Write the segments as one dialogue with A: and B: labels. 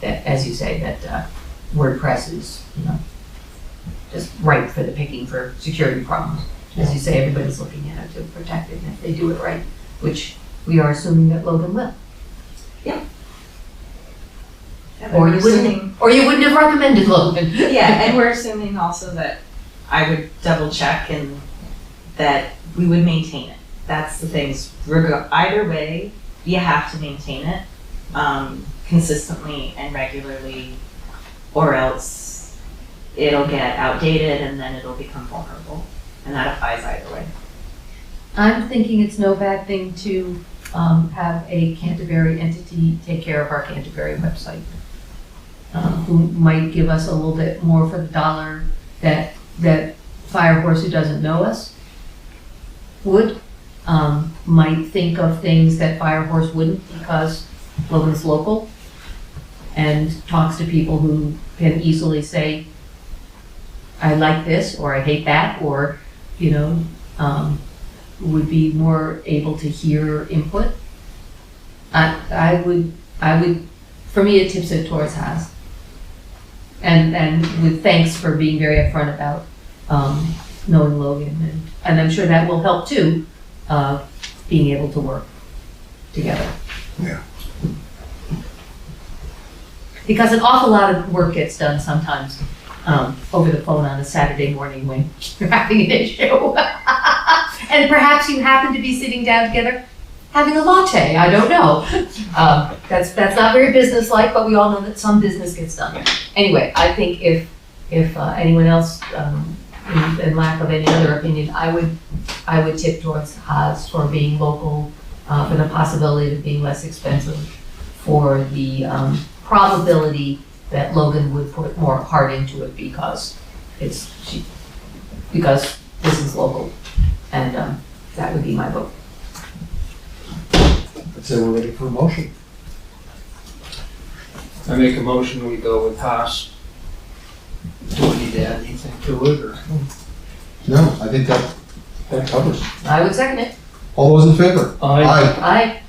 A: that, as you say, that uh, WordPress is, you know, just ripe for the picking for security problems. As you say, everybody's looking at it to protect it, and if they do it right, which we are assuming that Logan will.
B: And
A: Or
B: we're
A: you wouldn't-
B: assuming-
A: Or you wouldn't have recommended Logan.
B: Yeah, and we're assuming also that I would double check and that we would maintain it. That's the things, reg- either way, you have to maintain it, um, consistently and regularly, or else it'll get outdated and then it'll become vulnerable, and that applies either way.
A: I'm thinking it's no bad thing to um, have a Canterbury entity take care of our Canterbury website, um, who might give us a little bit more for the dollar that that Firehorse, who doesn't know us, would um, might think of things that Firehorse wouldn't because Logan's local and talks to people who can easily say, "I like this" or "I hate that" or you know. Um, would be more able to hear input. I, I would, I would, for me, it tips it towards Haas. And, and with thanks for being very upfront about, um, knowing Logan and, and I'm sure that will help too, uh, being able to work together.
C: Yeah.
A: Because an awful lot of work gets done sometimes, um, over the phone on a Saturday morning when you're having an issue. and perhaps you happen to be sitting down together having a latte. I don't know. Um, that's that's not very businesslike, but we all know that some business gets done. Anyway, I think if if uh, anyone else, um, in, in lack of any other opinion, I would I would tip towards Haas for being local, uh, for the possibility of being less expensive, for the um, probability that Logan would put more heart into it because it's she, because this is local. And um, that would be my vote.
C: So we're ready for a motion.
D: I make a motion, we go with Haas. Do we need to add anything to it, or?
C: No, I think that, that covers. it.
A: I would second it.
C: All those in favor? Aye.
A: Aye.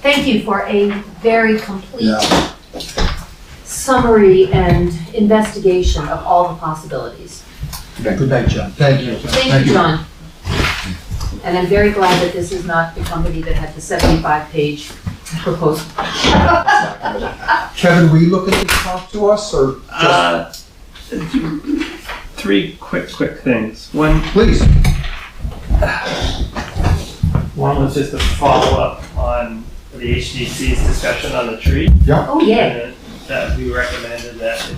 A: Thank you for a very complete
C: Yeah,
A: summary and investigation of all the possibilities.
C: good night, John. Thank you.
A: Thank you, John. And I'm very glad that this is not the company that had the 75-page proposal.
C: Kevin, will you look at this talk to us or just,
E: Uh, three quick, quick things. One,
C: please?
E: one was just a follow up on the HDC's discussion on the tree.
A: Oh, yeah.
E: and That we recommended that.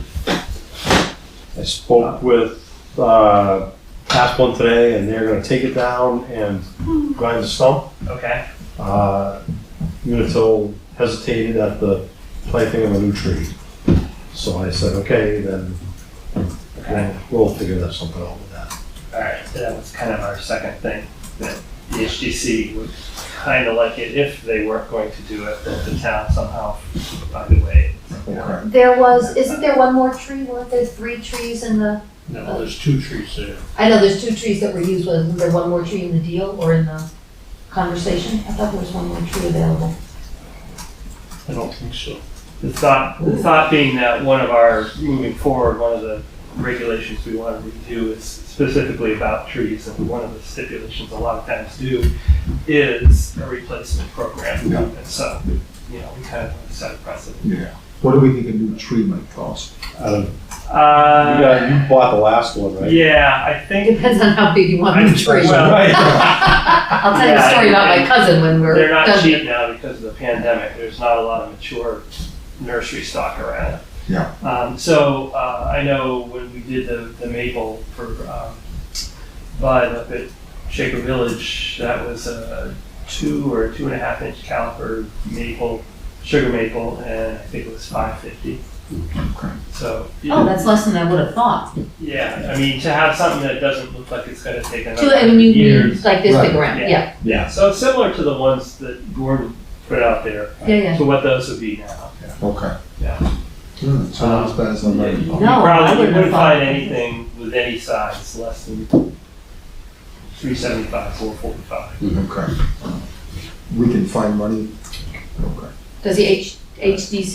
F: I spoke with uh, Asplin today, and they're going to take it down and grind the stump.
E: Okay.
F: Uh, Unitil hesitated at the planting of a new tree, so I said, "Okay, then, then we'll figure that something out with that."
E: All right. So that was kind of our second thing that the E HDC would kind of like it if they weren't going to do it, that the town somehow find a way.
A: There was, isn't there one more tree? Weren't there three trees in the,
G: No, there's two trees there.
A: I know there's two trees that were used, wasn't there one more tree in the deal or in the conversation? I thought there was one more tree available.
G: I don't think so.
E: The thought, the thought being that one of our, moving forward, one of the regulations we want to review is specifically about trees, and one of the stipulations a lot of times do is a replacement program.
C: Yeah.
E: And so, you know, we kind of want to set a precedent.
C: Yeah. What do we think a new tree might cost?
F: I don't- you,
E: Uh,
F: got, you bought the last one, right?
E: yeah, I
A: It
E: think,
A: depends on how big you want the tree.
E: Well-
F: Right.
A: I'll tell you a story about my cousin when we're
E: they're not
A: done.
E: cheap now because of the pandemic, there's not a lot of mature nursery stock around.
C: Yeah.
E: Um, so, uh, I know when we did the, the maple for, um, bud up at Shaker Village, that was a two or two and a half inch caliper maple, sugar maple, and I think it was five fifty. So,
A: Oh, that's less than I would have thought.
E: yeah, I mean, to have something that doesn't look like it's gonna take
A: Two,
E: another
A: I mean, you
E: years.
A: need like this big around,
C: Right.
A: yeah,
E: Yeah, so it's similar to the ones that Gordon put out there,
A: yeah, yeah.
E: to what those would be now.
C: Okay.
E: Yeah.
C: Hmm, so not as bad as I'm ready.
E: Um, You
A: No, I
E: probably
A: wouldn't
E: wouldn't
A: have thought-
E: find anything with any size less than three seventy-five, four forty-five.
C: Okay. We can find money. Okay.
A: Does the H, HDC